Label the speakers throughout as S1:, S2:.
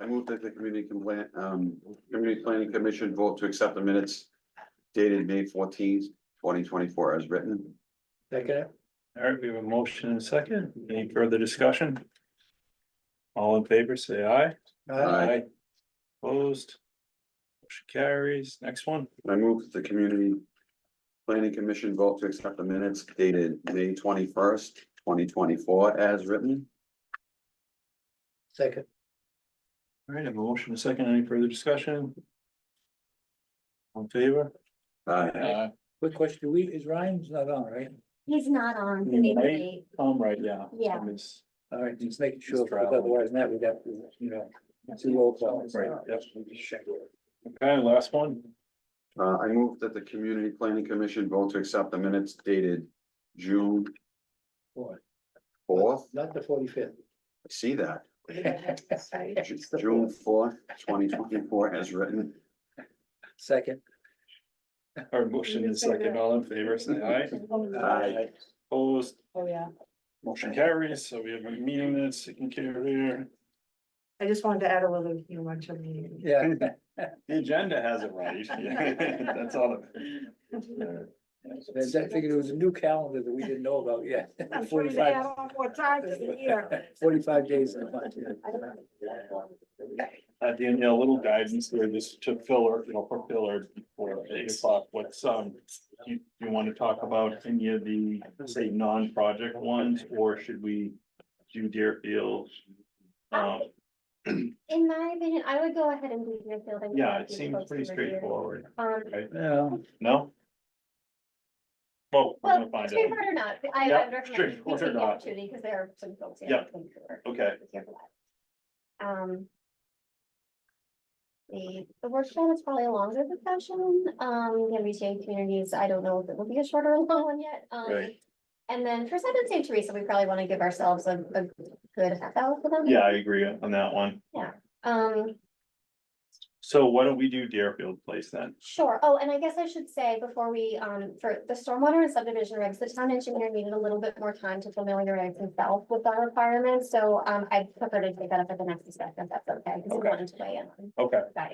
S1: I move that the community complaint, um, community planning commission vote to accept the minutes dated May fourteenth, twenty twenty-four as written.
S2: Second. All right, we have a motion and a second. Any further discussion? All in favor, say aye.
S1: Aye.
S2: Opposed. Motion carries. Next one.
S1: I move that the community planning commission vote to accept the minutes dated May twenty-first, twenty twenty-four as written.
S3: Second,
S2: All right, I have a motion and a second. Any further discussion? All in favor?
S1: Aye.
S2: Aye.
S3: quick question, we, is Ryan's not on, right?
S4: He's not on
S2: Yeah,
S4: today's
S2: right.
S4: date.
S2: Tom, right, yeah.
S4: Yeah.
S2: Tom is-
S3: All right, just making sure,
S2: He's
S3: because
S2: traveling.
S3: otherwise now we got, to, you know, two old calls.
S2: Right, yep. Okay, last one.
S1: Uh, I move that the community planning commission vote to accept the minutes dated June fourth.
S3: Not the forty-fifth.
S1: I see that. Ju- June fourth, twenty twenty-four as written.
S3: Second.
S2: Our motion and second. All in favor, say aye.
S1: Aye.
S2: Opposed.
S5: Oh, yeah.
S2: Motion carries, so we have a meeting that's taken care of here.
S5: I just wanted to add a little humor to the.
S3: Yeah,
S2: The agenda has it right. That's all. it- Uh,
S3: I figured it was a new calendar that we didn't know about yet.
S5: I'm sure they add
S3: Forty-five,
S5: on more time to the year.
S3: forty-five days in a month. yeah.
S2: Uh, Danielle, a little guidance there, this to filler, you know, for filler for eight o'clock, what's um. You, you want to talk about any of the, say, non-project ones, or should we do Deerfield? Um,
S4: In my opinion, I would go ahead and do your fielding.
S2: yeah, it seems pretty straightforward,
S4: Um,
S3: Well,
S2: no? Well, we're
S4: well,
S2: gonna find out.
S4: straightforward or not, I
S2: Yeah,
S4: I would recommend we
S2: straightforward or
S4: take the
S2: not.
S4: opportunity because there are some folks here.
S2: Yeah.
S4: that think we're-
S2: Okay.
S4: we're here for that. Um. The, the workshop is probably a longer discussion, um, the MBTA communities, I don't know if it will be a short or a long one yet, um.
S2: Right.
S4: And then for Seventh St. Teresa, we probably want to give ourselves a, a good half hour for them.
S2: Yeah, I agree on that one.
S4: Um.
S2: So why don't we do Deerfield Place then?
S4: Sure. Oh, and I guess I should say before we, um, for the stormwater and subdivision regs, the town engineer needed a little bit more time to familiarize himself with our requirements. So, um, I prefer to take that up at the next discussion, if that's okay, because
S2: Okay.
S4: I wanted to weigh in on
S2: Okay,
S4: that.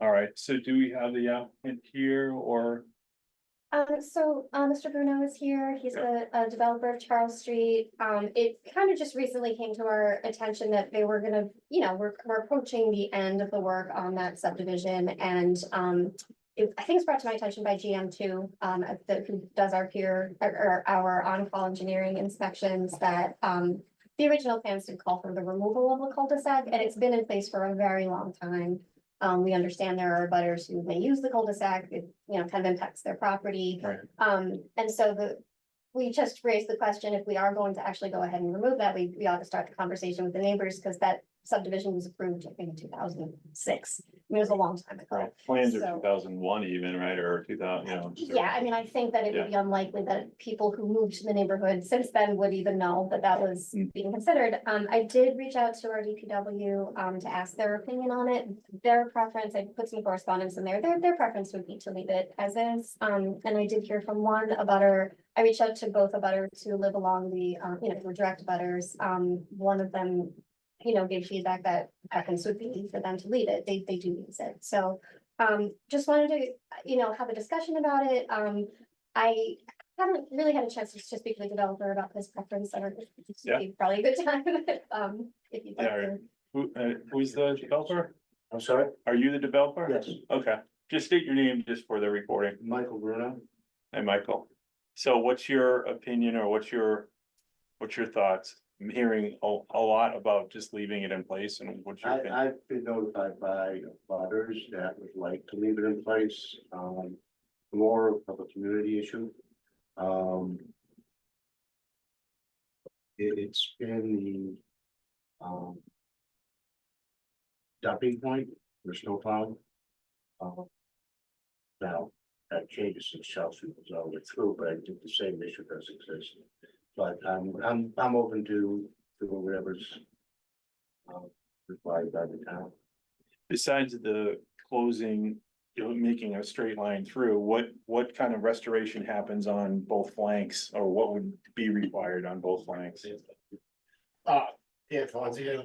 S2: all right, so do we have the applicant here or?
S4: Um, so, uh, Mr. Bruno is here. He's a, a developer of Charles Street. Um, it kind of just recently came to our attention that they were gonna, you know, we're, we're approaching the end of the work on that subdivision and, um, it, I think it's brought to my attention by GM two, um, at the, who does our peer, or, or our on-call engineering inspections that, um, the original plans did call for the removal of a cul-de-sac and it's been in place for a very long time. Um, we understand there are butters who may use the cul-de-sac, it, you know, kind of impacts their property.
S2: Right.
S4: Um, and so the, we just raised the question, if we are going to actually go ahead and remove that, we, we ought to start the conversation with the neighbors, because that subdivision was approved, I think, in two thousand and six. I mean, it was a long time ago.
S2: Plans are
S4: So-
S2: two thousand one even, right, or two thousand, you know?
S4: Yeah, I mean, I think that it would be unlikely that people who moved to the neighborhood since then would even know that that was
S2: Mm.
S4: being considered. Um, I did reach out to our DPW, um, to ask their opinion on it. Their preference, I put some correspondence in there, their, their preference would be to leave it as is. Um, and I did hear from one about her I reached out to both a butter to live along the, um, you know, were direct butters, um, one of them. You know, gave feedback that preference would be for them to leave it, they, they do use it, so. Um, just wanted to, you know, have a discussion about it, um, I haven't really had a chance to speak to the developer about this preference, I don't. it's
S2: Yeah.
S4: Probably a good time, um, if you'd like
S2: Yeah,
S4: to.
S2: Who, uh, who's the developer?
S6: I'm sorry?
S2: Are you the developer?
S6: Yes,
S2: Okay, just state your name just for the recording.
S6: Michael Bruno.
S2: Hey, Michael. So what's your opinion or what's your, what's your thoughts? I'm hearing a, a lot about just leaving it in place and what's your
S6: I,
S2: opinion?
S6: I've been notified by butters that would like to leave it in place, um, more of a community issue. Um. It, it's been the, um. Dumping point, for snowplow. Um, Now, that changes since South Street was all the way through, but I think the same issue does exist. But I'm, I'm, I'm open to, to whatever's. Um, required by the town.
S2: besides the closing, you know, making a straight line through, what, what kind of restoration happens on both flanks? Or what would be required on both flanks?
S6: Uh, yeah, Fonzie,